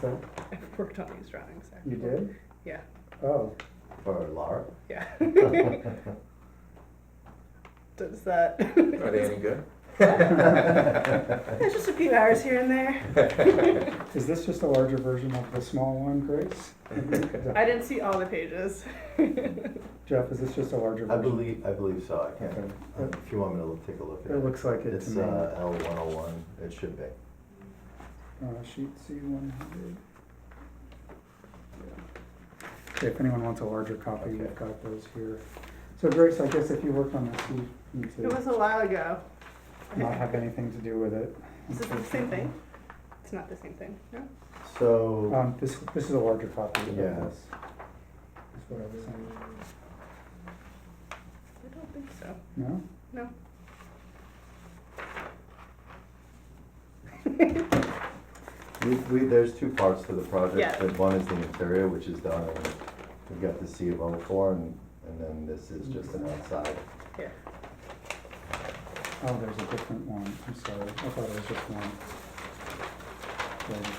So, I've worked on these drawings, actually. you did? Yeah. Oh, For Laura? Yeah. Does that? Are they any good? It's just a few hours here and there. is this just a larger version of the small one, Grace? I didn't see all the pages. Jeff, is this just a larger I version? believe, I believe so, I can't, Okay. uh, if you want me to look- take a look at it. It looks like it to It's me. uh, L one oh one, it should be. Uh, sheet C one hundred. Okay, if anyone wants a larger copy, we've Okay. got those here. So Grace, I guess if you worked on this, you need It was to a while ago. not have anything to do with it. Is this the same thing? It's not the same thing, no? So, Um, this, this is a larger copy of Yeah. this. Is what I was saying. I don't think so. No? No. we, we, there's two parts to the project. Yeah. But One is the interior, which is done, and we've got the C of O four, and, and then this is just an outside. Here. Oh, there's a different one, I'm sorry, I thought it was just one. Larger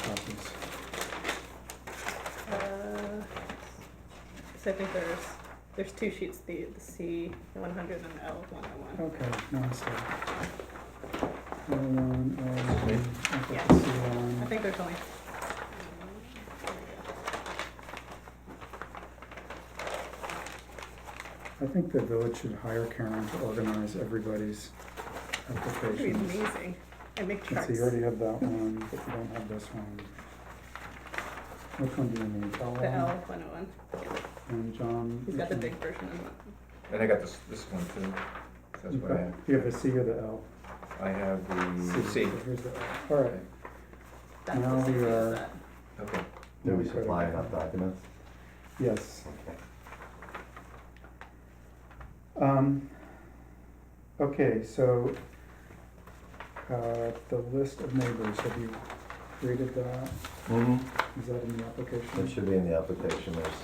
copies. Uh, So I think there's, there's two sheets, the, the C one hundred and the L one oh one. Okay, no, I see. L one, um, L Me? one, okay, Yeah. C one. I think there's only. I think the village should hire Karen to organize everybody's It'd be applications. amazing. And make Let's charts. see, you already have that one, but you don't have this one. Which one do you need? L The L one one oh one. and John? He's got the which big one? version of it. And I got this, this one too. That's what I Okay. have. Do you have the C or the L? I have the Mm, C. Here's the L. All right, That's Now the we same are- as that. Okay. Do we Okay. supply enough documents? yes. Okay. Um, okay, so, uh, the list of neighbors, have you created that? Mm-hmm. Is that in the application? It should be in the application, there's,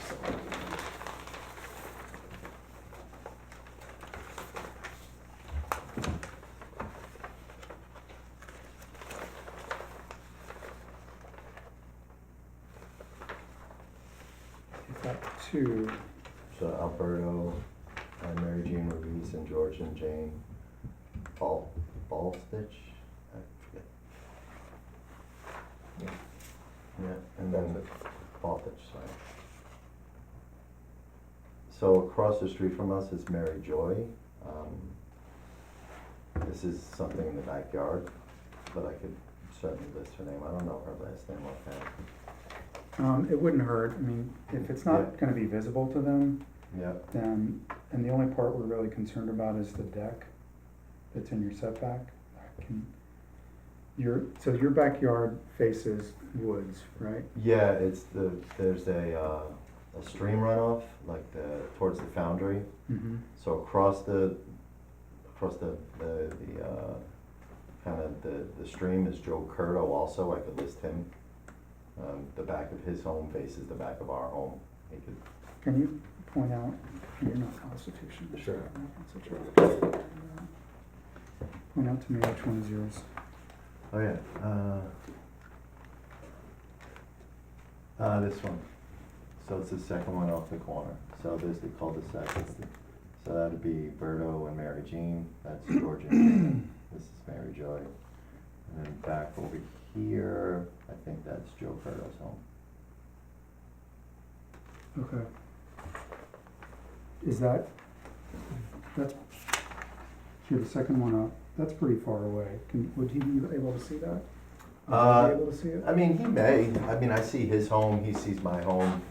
You've got two. so Alberto, uh, Mary Jean Ruiz, and George and Jane Ball, Ball Stitch? I forget. Yeah. Yeah, and then Ball Stitch, sorry. So across the street from us is Mary Joy. Um, This is something in the backyard, but I could certainly list her name, I don't know her last name offhand. Um, it wouldn't hurt, I mean, if it's not gonna be visible to them, Yeah, then, and the only part we're really concerned about is the deck that's in your setback. That Can, your, so your backyard faces woods, right? Yeah, it's the, there's a, uh, a stream runoff, like the, towards the foundry. Mm-hmm. So across the, across the, the, the, uh, kind of the, the stream is Joe Curto also, I could list him. Um, the back of his home faces the back of our home. He could, Can you point out, you're not constitution. Sure. Point out to me which one is yours. oh yeah, uh, uh, this one. So it's the second one off the corner. So there's the cul-de-sac. It's the- So that'd be Berto and Mary Jean. That's George and Gina. This is Mary Joy. And then back over here, I think that's Joe Berto's home. Okay. Is that, that's, here, the second one up, that's pretty far away. Can, would he be able to see that? Would he Uh, be able to see it? I mean, he may. I mean, I see his home, he sees my home.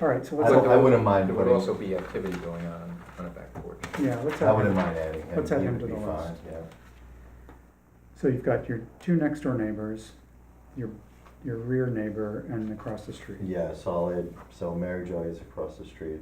All right, so I let's, don't, I wouldn't There mind would putting, also be activity going on on a back porch. yeah, let's I have wouldn't him. mind adding him. Let's add He him would to be the fine, list. Yeah. So you've got your two next door neighbors, your, your rear neighbor and across the street. Yeah, solid. So Mary Joy is across the street.